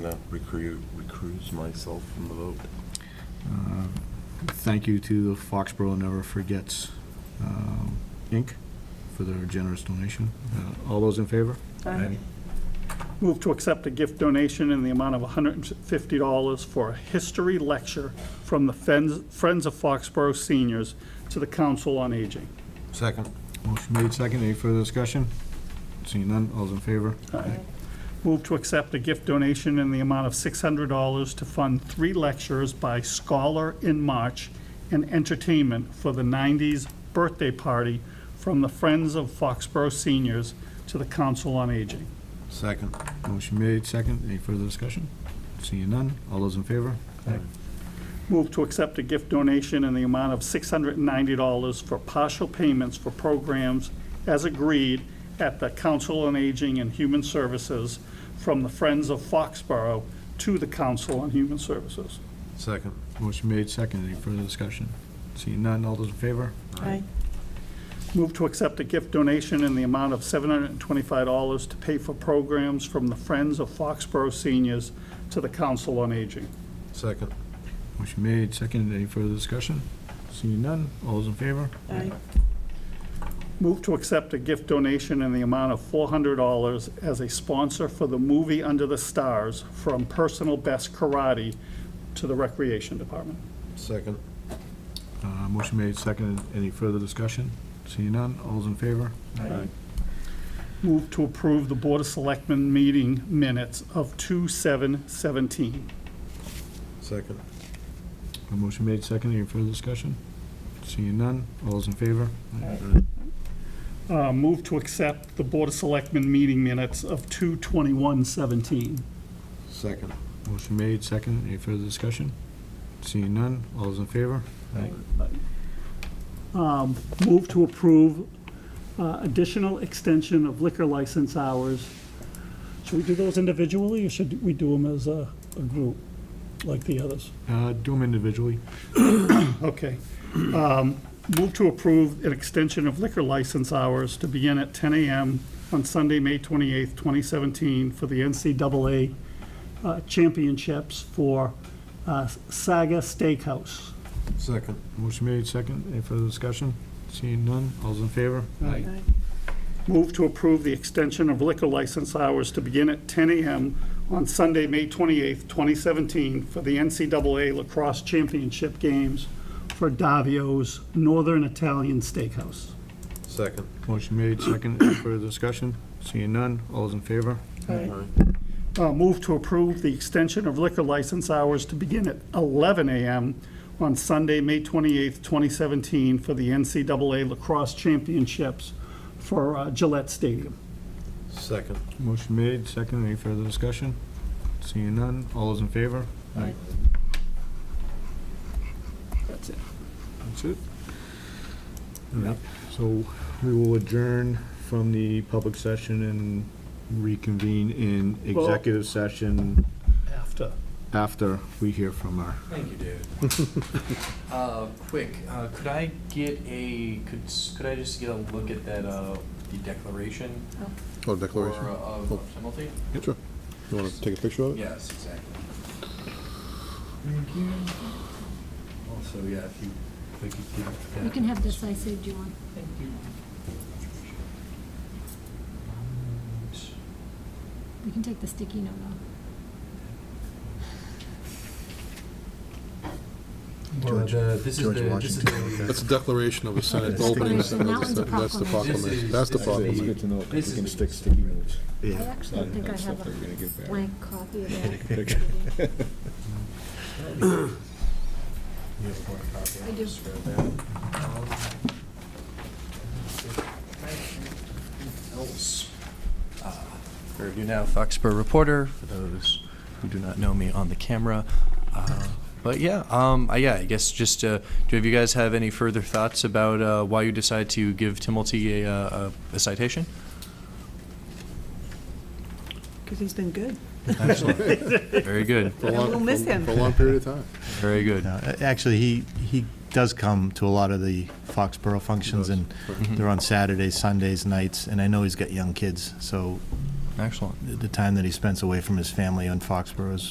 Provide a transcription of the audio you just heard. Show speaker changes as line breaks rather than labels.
to recruit, recuse myself from the vote.
Uh, Thank you to the Foxborough Never Forgets, um, Inc., for their generous donation. Uh, All those in favor?
Aye.
Move to accept a gift donation in the amount of $150 for a history lecture from the Friends Friends of Foxborough Seniors to the Council on Aging.
Second.
Motion made, second. Any further discussion? Seeing none, all's in favor?
Move to accept a gift donation in the amount of $600 to fund three lectures by Scholar in March and entertainment for the 90s birthday party from the Friends of Foxborough Seniors to the Council on Aging.
Second.
Motion made, second. Any further discussion? Seeing none, all those in favor?
Move to accept a gift donation in the amount of $690 for partial payments for programs as agreed at the Council on Aging and Human Services from the Friends of Foxborough to the Council on Human Services.
Second.
Motion made, second. Any further discussion? Seeing none, all those in favor?
Aye.
Move to accept a gift donation in the amount of $725 to pay for programs from the Friends of Foxborough Seniors to the Council on Aging.
Second.
Motion made, second. Any further discussion? Seeing none, all those in favor?
Aye.
Move to accept a gift donation in the amount of $400 as a sponsor for the movie Under the Stars from Personal Best Karate to the Recreation Department.
Second.
Uh, Motion made, second. Any further discussion? Seeing none, all those in favor?
Move to approve the Board of Selectmen meeting minutes of 2/7/17.
Second.
A motion made, second. Any further discussion? Seeing none, all those in favor?
Uh, Move to accept the Board of Selectmen meeting minutes of 2/21/17.
Second.
Motion made, second. Any further discussion? Seeing none, all those in favor?
Um, Move to approve uh, additional extension of liquor license hours. Should we do those individually, or should we do them as a, a group, like the others?
Uh, Do them individually.
Okay. Um, Move to approve an extension of liquor license hours to begin at 10 AM on Sunday, May 28th, 2017, for the NCAA uh, championships for uh, Saga Steakhouse.
Second.
Motion made, second. Any further discussion? Seeing none, all those in favor?
Aye. Move to approve the extension of liquor license hours to begin at 10 a.m. on Sunday, May 28th, 2017, for the NCAA Lacrosse Championship Games for Davio's Northern Italian Steakhouse.
Second.
Motion made, second. Any further discussion? Seeing none, all those in favor?
Aye.
Uh, Move to approve the extension of liquor license hours to begin at 11 a.m. on Sunday, May 28th, 2017, for the NCAA Lacrosse Championships for uh, Gillette Stadium.
Second.
Motion made, second. Any further discussion? Seeing none, all those in favor?
Aye.
That's it. That's it? Yep. So we will adjourn from the public session and reconvene in
Well-
executive session
After.
after we hear from our,
Thank you, David. Uh, Quick, uh, could I get a, could, s- could I just get a look at that, uh, the declaration?
Oh,
or, uh, Of of penalty?
Sure. You want to take a picture of
Yes, exactly. Thank you. Also, yeah, if you, if I could get that.
You can have this, I saved you one.
Thank you. Um,
We can take the sticky note off. Um,
Or the- This is the, this is the,
That's a declaration of a Senate
That's the
opening.
declaration. That one's a
That's the
proclamation.
proclamation. That's the
This is-
proclamation.
good to know,
This
we can
is stick sticky notes.
I actually think I have
we're gonna
a
give back.
blank copy of that.
you have a hard copy.
I do.
Just grab that. Else. Uh, Review now, Foxborough Reporter, for those who do not know me on the camera. Uh, But yeah, um, I- yeah, I guess just, uh, do you guys have any further thoughts about uh, why you decide to give Timulty a, uh, a a citation?
Because he's been good.
Excellent. Very good,
For a long-
We'll miss him.
For a long period of time.
very good.
No, uh, a- Actually, he, he does come to a lot of the Foxborough functions, and they're on Saturdays, Sundays, nights, and I know he's got young kids, so
Excellent.
the time that he spends away from his family in Foxborough is